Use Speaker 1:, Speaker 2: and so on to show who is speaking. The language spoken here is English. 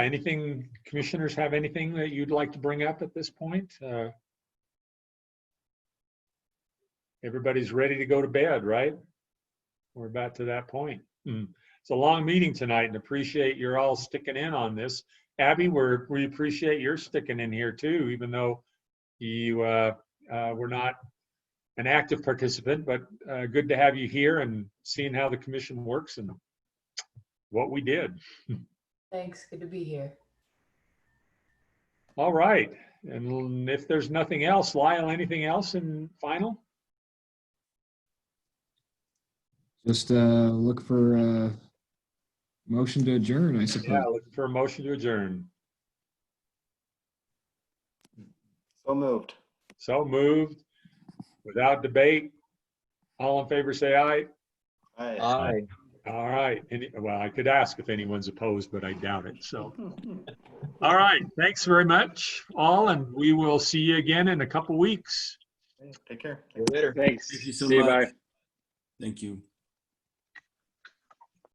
Speaker 1: Anything, commissioners have anything that you'd like to bring up at this point? Uh, Everybody's ready to go to bed, right? We're about to that point. Mm. It's a long meeting tonight and appreciate you're all sticking in on this. Abby, we're, we appreciate your sticking in here too, even though you, uh, uh, were not an active participant, but, uh, good to have you here and seeing how the commission works and what we did.
Speaker 2: Thanks, good to be here.
Speaker 1: All right, and if there's nothing else, Lyle, anything else in final?
Speaker 3: Just uh, look for uh motion to adjourn, I
Speaker 1: Yeah,
Speaker 3: suppose.
Speaker 1: looking for a motion to adjourn.
Speaker 4: So moved.
Speaker 1: So moved, without debate. All in favor, say aye.
Speaker 4: Aye.
Speaker 5: Aye.
Speaker 1: All right, any, well, I could ask if anyone's opposed, but I doubt it, so. All right, thanks very much, all, and we will see you again in a couple weeks.
Speaker 4: Take care.
Speaker 5: Later.
Speaker 6: Thanks.
Speaker 7: Thank you so
Speaker 6: See you,
Speaker 7: much.
Speaker 6: bye.
Speaker 7: Thank you.